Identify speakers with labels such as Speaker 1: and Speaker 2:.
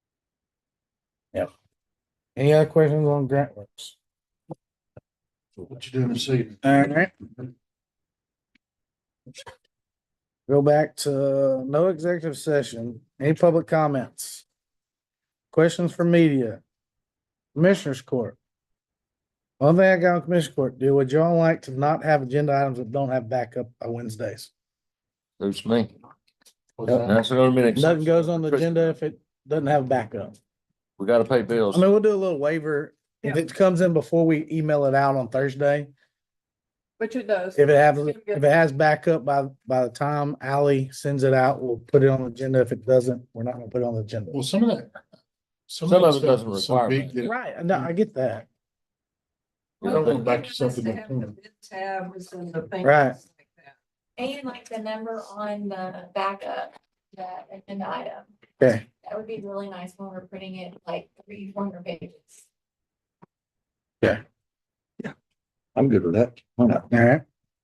Speaker 1: Yep. Any other questions on grant works?
Speaker 2: What you doing this evening?
Speaker 1: Alright. Go back to no executive session, any public comments? Questions for media? Commissioners Court. One thing I got on Commissioners Court, do would y'all like to not have agenda items that don't have backup on Wednesdays?
Speaker 3: Suits me.
Speaker 2: What's that?
Speaker 3: That's another minute.
Speaker 1: Nothing goes on the agenda if it doesn't have backup.
Speaker 3: We gotta pay bills.
Speaker 1: I mean, we'll do a little waiver. If it comes in before we email it out on Thursday,
Speaker 4: Which it does.
Speaker 1: If it has, if it has backup by, by the time Ally sends it out, we'll put it on the agenda. If it doesn't, we're not gonna put it on the agenda.
Speaker 2: Well, some of that. Some
Speaker 3: Some
Speaker 2: that
Speaker 3: of it
Speaker 2: stuff
Speaker 3: doesn't
Speaker 2: is so
Speaker 3: require
Speaker 2: big that-
Speaker 1: Right, no, I get that.
Speaker 2: I don't want to back yourself to
Speaker 4: They
Speaker 2: that
Speaker 4: have the
Speaker 2: point.
Speaker 4: bid Tab was in the thing.
Speaker 1: Right.
Speaker 4: like that.
Speaker 5: And like the number on the backup, the agenda item,
Speaker 1: Okay,
Speaker 5: that would be really nice when we're printing it like three, four hundred pages.
Speaker 1: all right.